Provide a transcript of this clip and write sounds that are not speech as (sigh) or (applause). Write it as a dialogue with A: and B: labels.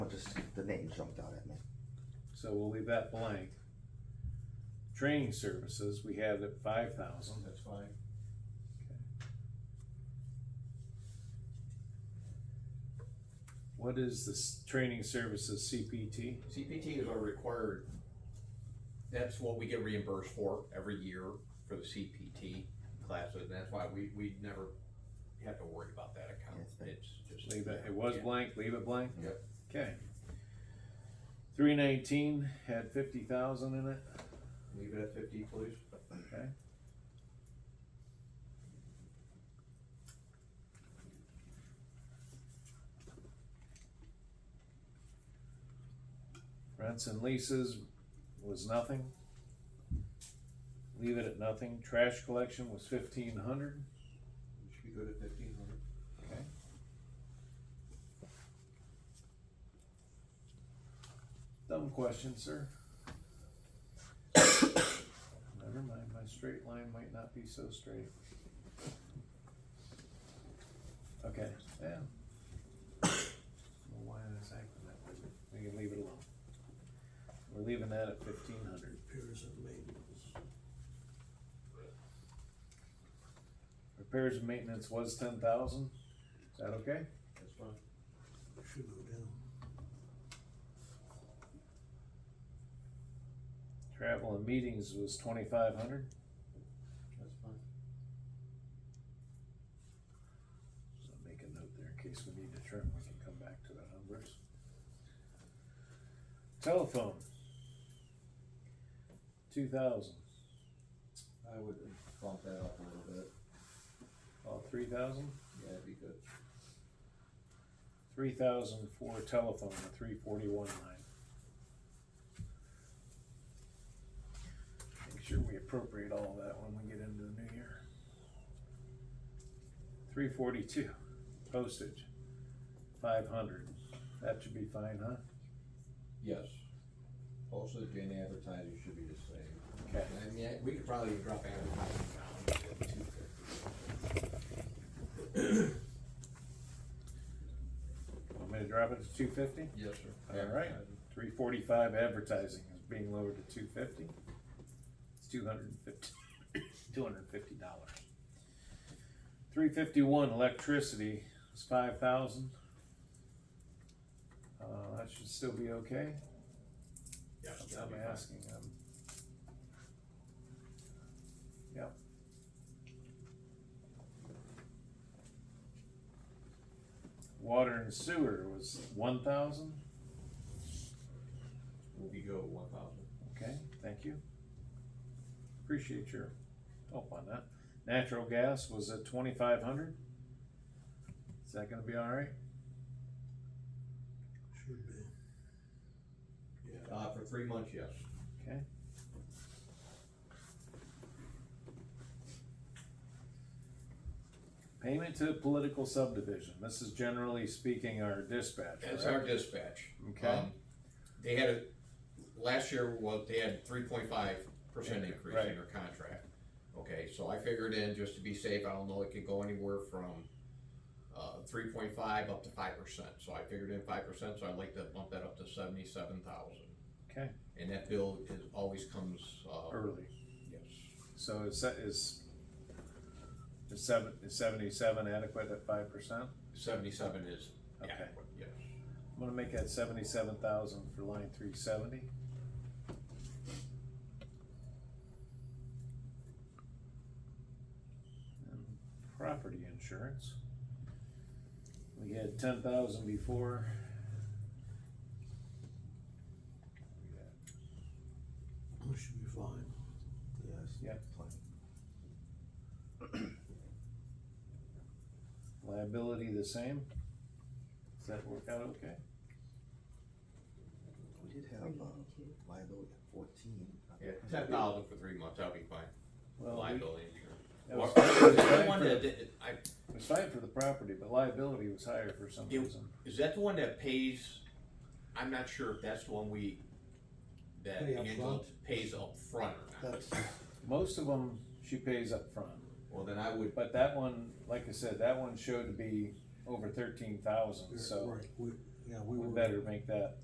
A: the name jumped out at me.
B: So we'll leave that blank. Training services, we have at five thousand.
C: Oh, That's fine.
B: What is this training services CPT?
C: CPT is our required, that's what we get reimbursed for every year for the CPT classes, and that's why we, we never have to worry about that account,
A: Yes, but-
C: it's just.
B: Leave it, it was blank, leave it blank?
C: Yep.
B: Okay. Three nineteen had fifty thousand in it,
C: Leave it at fifty, please.
B: okay? Rents and leases was nothing. Leave it at nothing. Trash collection was fifteen hundred,
C: We Should be good at fifteen hundred.
B: okay? Dumb question, sir. Never mind, my straight line might not be so straight. Okay, yeah. Well, why is that acting that way? We can leave it alone. We're leaving that at fifteen hundred.
D: Repairs and maintenance.
B: Repairs and maintenance was ten thousand, is that okay?
C: That's fine.
D: Should go down.
B: Travel and meetings was twenty-five hundred.
C: That's fine.
B: So make a note there in case we need to trim, we can come back to the numbers. Telephone. Two thousand,
E: I would bump that up a little bit,
B: oh, three thousand?
E: yeah, it'd be good.
B: Three thousand for telephone, the three forty-one line. Make sure we appropriate all of that when we get into the new year. Three forty-two, postage, five hundred, that should be fine, huh?
E: Yes. Postage and advertising should be the same.
B: Okay.
E: I mean, I- we could probably drop advertising down to two fifty.
B: Want me to drop it to two fifty?
E: Yes, sir.
B: All right.
E: Advertising.
B: Three forty-five advertising is being lowered to two fifty. It's two hundred and fifty, (coughs) two hundred and fifty dollars. Three fifty-one electricity is five thousand. Uh, that should still be okay.
C: Yes, that'll
B: I'm
C: be fine.
B: asking, um. Yep. Water and sewer was one thousand.
C: We'll be go one thousand.
B: Okay, thank you. Appreciate your help on that. Natural gas was at twenty-five hundred. Is that gonna be all right?
D: Should be. Yeah.
E: Uh, for three months, yes.
B: Okay. Payment to political subdivision. This is generally speaking our dispatch,
C: That's
B: right?
C: our dispatch.
B: Okay.
C: Um, They had a, last year, well, they had three point five percent increase
B: Right.
C: in their contract. Okay, so I figured in, just to be safe, I don't know, it could go anywhere from, uh, three point five up to five percent. So I figured in five percent, so I'd like to bump that up to seventy-seven thousand.
B: Okay,
C: And that bill is, always comes, uh,
B: early.
C: yes,
B: So is, that- is, is seven, is seventy-seven adequate at five percent?
C: seventy-seven is
B: Okay.
C: adequate, yes.
B: I'm gonna make that seventy-seven thousand for line three seventy. And Property insurance. We had ten thousand before.
D: We Should be fine.
A: Yes.
B: Yeah.
A: Plenty.
B: Liability the same. Does that work out okay?
A: We did have, um, liability at fourteen.
C: Yeah, ten thousand for three months, that'll be fine,
B: Well, we-
C: liability.
B: that was- it was
C: Is that
B: fine
C: the one
B: for-
C: that, did- I,
B: It was fine for the property, but liability was higher for some
C: It-
B: reason.
C: Is that the one that pays, I'm not sure if that's the one we, that
D: Pay up
C: Angela pays up front or not.
A: That's,
B: Most of them, she pays up front.
E: Well, then I would,
B: But that one, like I said, that one showed to be over thirteen thousand, so
D: Right, we, yeah, we
B: we
D: were.
B: better make that